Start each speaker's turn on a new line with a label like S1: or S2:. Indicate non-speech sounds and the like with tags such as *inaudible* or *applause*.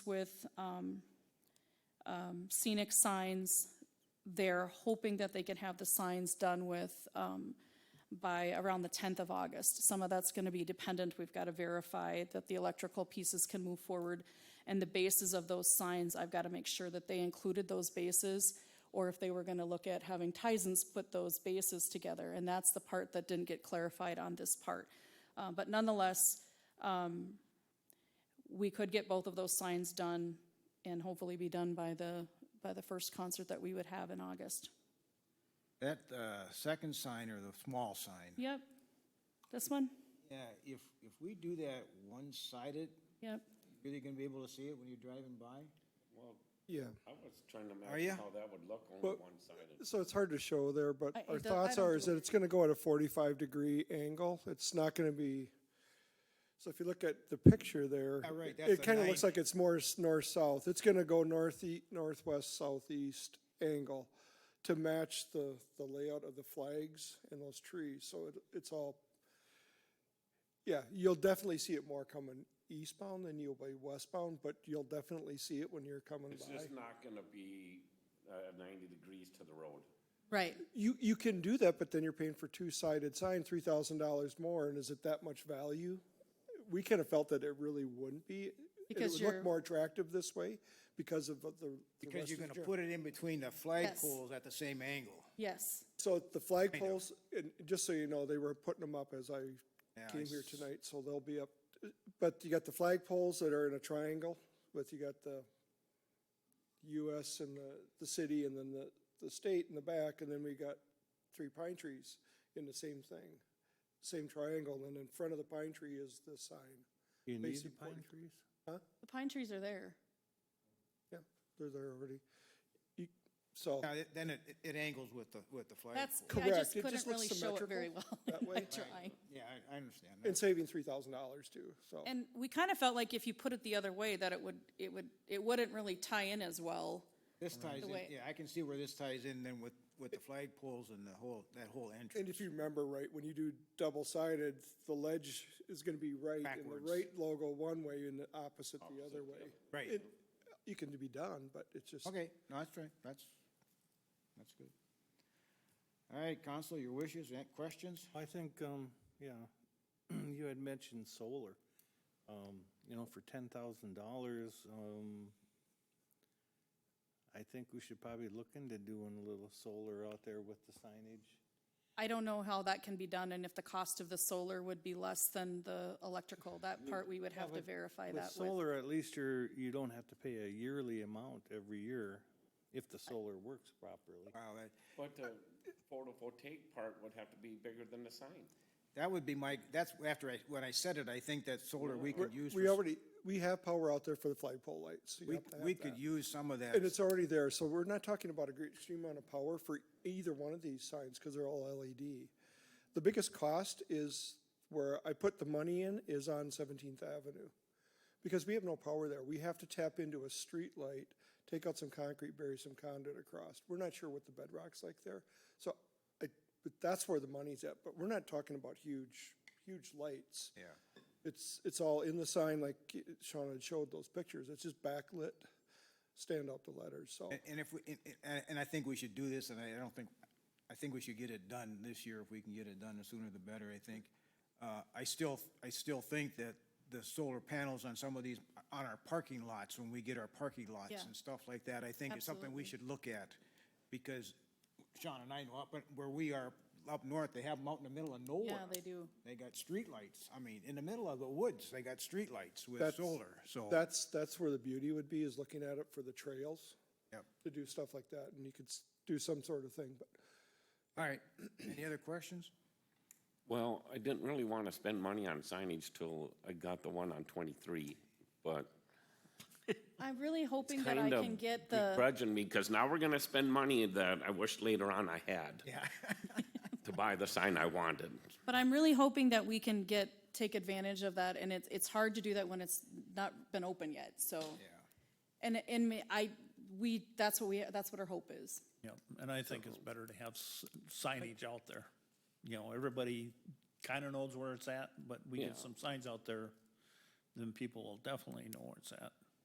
S1: with um, um, scenic signs. They're hoping that they can have the signs done with um, by around the 10th of August. Some of that's going to be dependent. We've got to verify that the electrical pieces can move forward. And the bases of those signs, I've got to make sure that they included those bases or if they were going to look at having Tysons put those bases together. And that's the part that didn't get clarified on this part. Uh, But nonetheless, we could get both of those signs done and hopefully be done by the, by the first concert that we would have in August.
S2: That uh, second sign or the small sign?
S1: Yep. This one?
S2: Yeah, if, if we do that one-sided,
S1: Yep.
S2: really gonna be able to see it when you're driving by?
S3: Well,
S4: Yeah,
S3: I was trying to
S2: ya?
S3: imagine how that would look
S4: Well-
S3: only one-sided.
S4: so it's hard to show there, but
S1: I- it
S4: our
S1: does- I
S4: thoughts
S1: don't
S4: are
S1: do
S4: is that
S1: it.
S4: it's gonna go at a forty-five degree angle. It's not gonna be, so if you look at the picture there.
S2: Yeah, Oh, right,
S4: it-
S2: that's
S4: It
S2: a
S4: kinda looks
S2: 90.
S4: like it's more s- north-south. It's gonna go north northwest, southeast angle to match the, the layout of the flags and those trees, so it, it's all. Yeah, you'll definitely see it more coming eastbound than you'll be westbound, but you'll definitely see it when you're coming
S3: It's
S4: by.
S3: just not gonna be, uh, ninety degrees to the road.
S1: Right.
S4: You, you can do that, but then you're paying for two-sided sign, three thousand dollars more, and is it that much value? We kind of felt that it really wouldn't be. and
S1: Because
S4: It would
S1: you're-
S4: look more attractive this way because of the. the
S2: Because
S4: rest
S2: you're
S4: of the
S2: gonna
S4: gen-
S2: put it in between the flagpoles
S1: poles
S2: at the same angle.
S1: Yes.
S4: So the flagpoles, and just so you know, they were putting them up as I
S2: Yeah, I
S4: came here
S2: s-
S4: tonight, so they'll be up. But you got the flagpoles that are in a triangle, but you got the US and the, the city and then the, the state in the back, and then we got three pine trees in the same thing. Same triangle, and then in front of the pine tree is the sign.
S5: You need the
S4: Basic
S5: pine
S4: work.
S5: trees?
S1: The pine trees are there.
S4: Yeah, they're there already. You- So,
S2: Now, it- then it, it angles with the, with the flagpole.
S1: That's, I
S4: Correct.
S1: just
S4: It
S1: couldn't
S4: just looks
S1: really show it very well
S4: symmetrical
S1: *laughs*
S4: that
S1: by
S4: way.
S1: trying.
S2: Yeah, I, I understand.
S4: and
S2: that.
S4: saving three thousand dollars too, so.
S1: And we kind of felt like if you put it the other way, that it would, it would, it wouldn't really tie in as well.
S2: This ties in,
S1: way-
S2: yeah, I can see where this ties in then with, with the flagpoles and the whole, that whole
S4: And
S2: entrance.
S4: if you remember right, when you do double-sided, the ledge is gonna be right, and
S2: Backwards.
S4: the right logo one way and the opposite the other way.
S2: Right.
S4: It, you can be done, but it's just,
S2: Okay, no, that's right, that's, that's good. All right, council, your wishes, eh, questions?
S5: I think, um, yeah, *clears throat* you had mentioned solar. Um, you know, for ten thousand dollars, um, I think we should probably look into doing a little solar out there with the signage.
S1: I don't know how that can be done and if the cost of the solar would be less than the electrical. That part we would have to verify
S5: With
S1: that with.
S5: solar, at least you're, you don't have to pay a yearly amount every year if the solar works properly.
S2: Wow, that,
S3: But the photovoltaic part would have to be bigger than the sign.
S2: that would be my, that's after I, when I said it, I think that solar we could use.
S4: we
S2: for-
S4: already, we have power out there for the flagpole lights. so you
S2: We,
S4: have to have
S2: we could
S4: that.
S2: use some of that.
S4: And it's already there, so we're not talking about a great extreme amount of power for either one of these signs, because they're all LED. The biggest cost is where I put the money in is on Seventeenth Avenue. Because we have no power there. We have to tap into a street light, take out some concrete, bury some conduit across. We're not sure what the bedrock's like there. So I, but that's where the money's at, but we're not talking about huge, huge lights.
S2: Yeah.
S4: It's, it's all in the sign, like Sean had showed those pictures. It's just backlit, stand up the letters, so.
S2: And- And if, we- and- and, and I think we should do this, and I don't think, I think we should get it done this year, if we can get it done, the sooner the better, I think. Uh, I still, I still think that the solar panels on some of these, on our parking lots, when we get our parking lots
S1: Yeah.
S2: and stuff like that, I think is something we should look at. Because Sean and I know, up at- where we are up north, they have them out in the middle of nowhere.
S1: Yeah, they do.
S2: They got streetlights, I mean, in the middle of the woods, they got streetlights with
S4: That's-
S2: solar, so.
S4: That's, that's where the beauty would be, is looking at it for the trails,
S2: Yep.
S4: to do stuff like that, and you could s- do some sort of thing, but
S2: All right, *clears throat* any other questions?
S3: Well, I didn't really want to spend money on signage till I got the one on twenty-three, but
S1: I'm really hoping that I
S3: kind of
S1: can get the,
S3: begrudging me, because now we're gonna spend money that I wish later on I had
S2: Yeah.
S3: to buy the sign I wanted.
S1: but I'm really hoping that we can get, take advantage of that. And it's, it's hard to do that when it's not been open yet, so. And, and ma- I, we, that's what we, that's what our hope is.
S6: Yep, and I think it's better to have s- signage out there. You know, everybody kind of knows where it's at, but we
S3: Yeah.
S6: get some signs out there, then people will definitely know where it's at.